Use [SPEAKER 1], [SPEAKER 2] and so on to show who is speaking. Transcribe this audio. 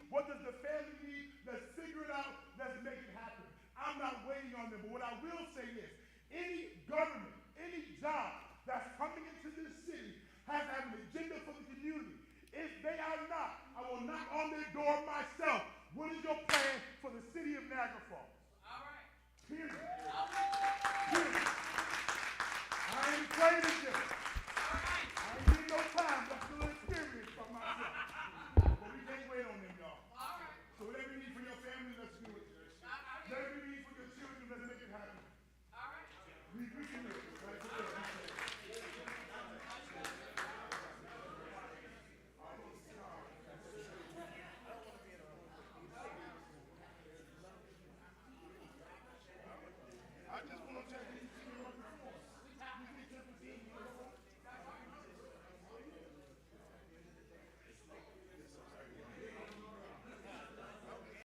[SPEAKER 1] Niagara Falls.
[SPEAKER 2] All right.
[SPEAKER 1] Period.